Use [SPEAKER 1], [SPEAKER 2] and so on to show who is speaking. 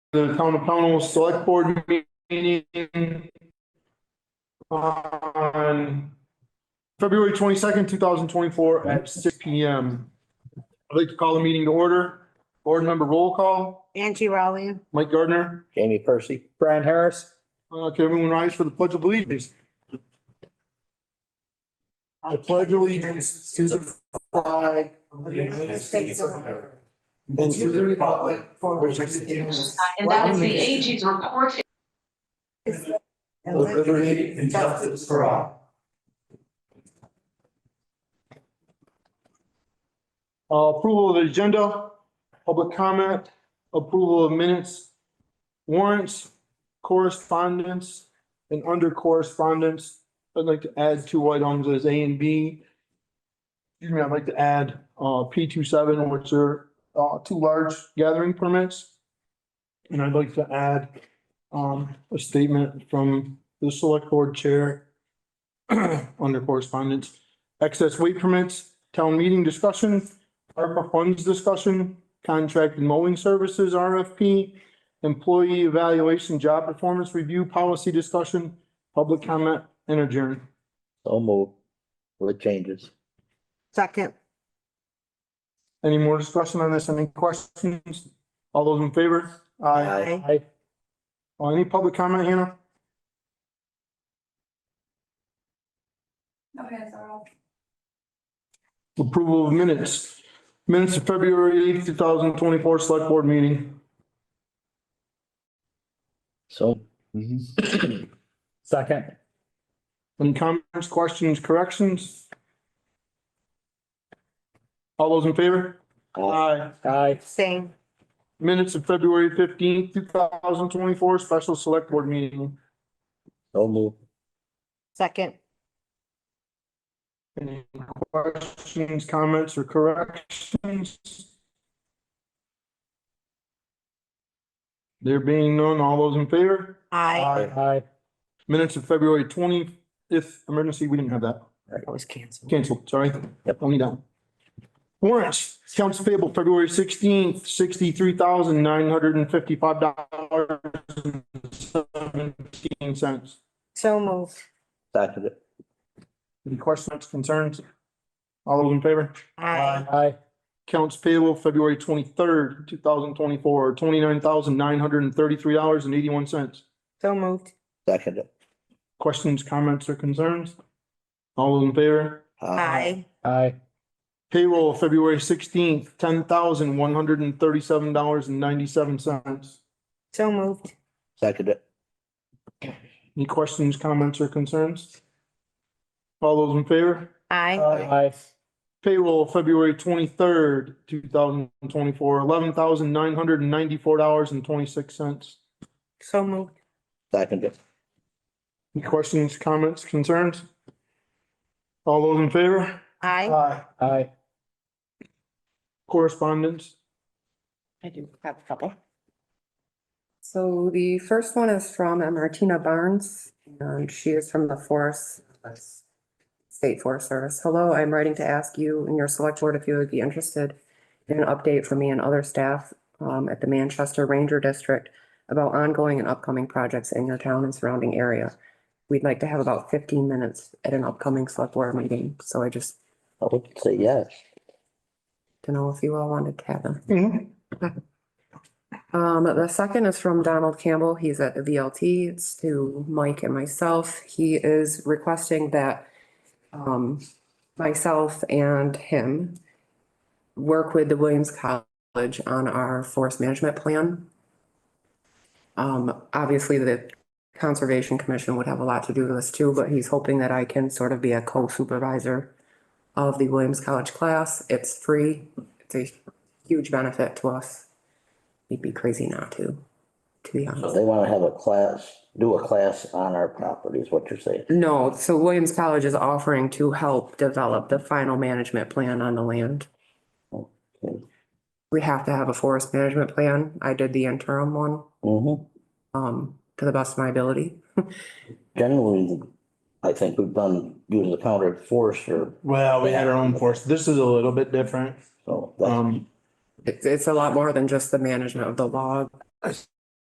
[SPEAKER 1] the Town of Pownell Select Board meeting on February twenty-second, two thousand twenty-four at six P M. I'd like to call the meeting to order. Board member roll call,
[SPEAKER 2] Angie Rowley.
[SPEAKER 1] Mike Gardner.
[SPEAKER 3] Jamie Percy.
[SPEAKER 4] Brian Harris.
[SPEAKER 1] Uh, can everyone rise for the pledge of allegiance? I pledge allegiance to the flag of the United States of America and to the republic for which it stands,
[SPEAKER 5] And that is the AG's report.
[SPEAKER 1] liberty and justice for all. Uh, Approval of the agenda, public comment, approval of minutes, warrants, correspondence, and under correspondence, I'd like to add two items as A and B. Excuse me, I'd like to add uh, P two seven, which are uh, two large gathering permits. And I'd like to add um, a statement from the select board chair under correspondence, excess weight permits, town meeting discussion, ARPA funds discussion, contract and mowing services, RFP, employee evaluation, job performance review, policy discussion, public comment, and adjourn.
[SPEAKER 3] So moved with changes.
[SPEAKER 2] Second.
[SPEAKER 1] Any more discussion on this? Any questions? All those in favor? Aye.
[SPEAKER 3] Aye.
[SPEAKER 1] Uh, Any public comment, Hannah?
[SPEAKER 5] Okay, so.
[SPEAKER 1] Approval of minutes. Minutes of February eighth, two thousand twenty-four, select board meeting.
[SPEAKER 3] So,
[SPEAKER 4] Second.
[SPEAKER 1] Any comments, questions, corrections? All those in favor? Aye.
[SPEAKER 4] Aye.
[SPEAKER 2] Same.
[SPEAKER 1] Minutes of February fifteenth, two thousand twenty-four, special select board meeting.
[SPEAKER 3] so moved.
[SPEAKER 2] Second.
[SPEAKER 1] Any questions, comments, or corrections? There being none, all those in favor?
[SPEAKER 2] Aye.
[SPEAKER 4] Aye.
[SPEAKER 1] Minutes of February twentieth, emergency, we didn't have that.
[SPEAKER 2] That was canceled.
[SPEAKER 1] Canceled, sorry.
[SPEAKER 3] Yep.
[SPEAKER 1] Only down. Warrants, accounts payable February sixteenth, sixty-three thousand nine hundred and fifty-five dollars and seventeen cents.
[SPEAKER 2] So moved.
[SPEAKER 3] Seconded.
[SPEAKER 1] Any questions, concerns? All those in favor?
[SPEAKER 2] Aye.
[SPEAKER 4] Aye.
[SPEAKER 1] Accounts payable February twenty-third, two thousand twenty-four, twenty-nine thousand nine hundred and thirty-three dollars and eighty-one cents.
[SPEAKER 2] So moved.
[SPEAKER 3] Seconded.
[SPEAKER 1] Questions, comments, or concerns? All those in favor?
[SPEAKER 3] Uh,
[SPEAKER 2] Aye.
[SPEAKER 4] Aye.
[SPEAKER 1] Payroll February sixteenth, ten thousand one hundred and thirty-seven dollars and ninety-seven cents.
[SPEAKER 2] So moved.
[SPEAKER 3] Seconded.
[SPEAKER 1] Any questions, comments, or concerns? All those in favor?
[SPEAKER 2] Aye.
[SPEAKER 4] Aye.
[SPEAKER 1] Payroll, February twenty-third, two thousand twenty-four, eleven thousand nine hundred and ninety-four dollars and twenty-six cents.
[SPEAKER 2] So moved.
[SPEAKER 3] Seconded.
[SPEAKER 1] Any questions, comments, concerns? All those in favor?
[SPEAKER 2] Aye.
[SPEAKER 1] Aye.
[SPEAKER 4] Aye.
[SPEAKER 1] Correspondence,
[SPEAKER 6] I do have a couple. So the first one is from uh, Martina Barnes, and she is from the Forest, State Forest Service. Hello, I'm writing to ask you and your select board if you would be interested in an update from me and other staff um, at the Manchester Ranger District about ongoing and upcoming projects in your town and surrounding area. We'd like to have about fifteen minutes at an upcoming select board meeting, so I just
[SPEAKER 3] I would say yes.
[SPEAKER 6] don't know if you all wanted to have them.
[SPEAKER 2] Mm-hmm.
[SPEAKER 6] Um, the second is from Donald Campbell. He's at the VLT. It's to Mike and myself. He is requesting that um, myself and him work with the Williams College on our forest management plan. Um, obviously, the Conservation Commission would have a lot to do with this too, but he's hoping that I can sort of be a co-supervisor of the Williams College class. It's free. It's a huge benefit to us we'd be crazy not to, to be
[SPEAKER 3] So
[SPEAKER 6] honest.
[SPEAKER 3] they want to have a class, do a class on our property is what you're saying.
[SPEAKER 6] No, so Williams College is offering to help develop the final management plan on the land.
[SPEAKER 3] Okay.
[SPEAKER 6] We have to have a forest management plan. I did the interim one,
[SPEAKER 3] Mm-hmm.
[SPEAKER 6] um, to the best of my ability.
[SPEAKER 3] Generally, I think we've done, use the counter force or
[SPEAKER 1] well, we had our own force. This is a little bit different.
[SPEAKER 3] so. that's-
[SPEAKER 1] Um,
[SPEAKER 6] It's, it's a lot more than just the management of the log.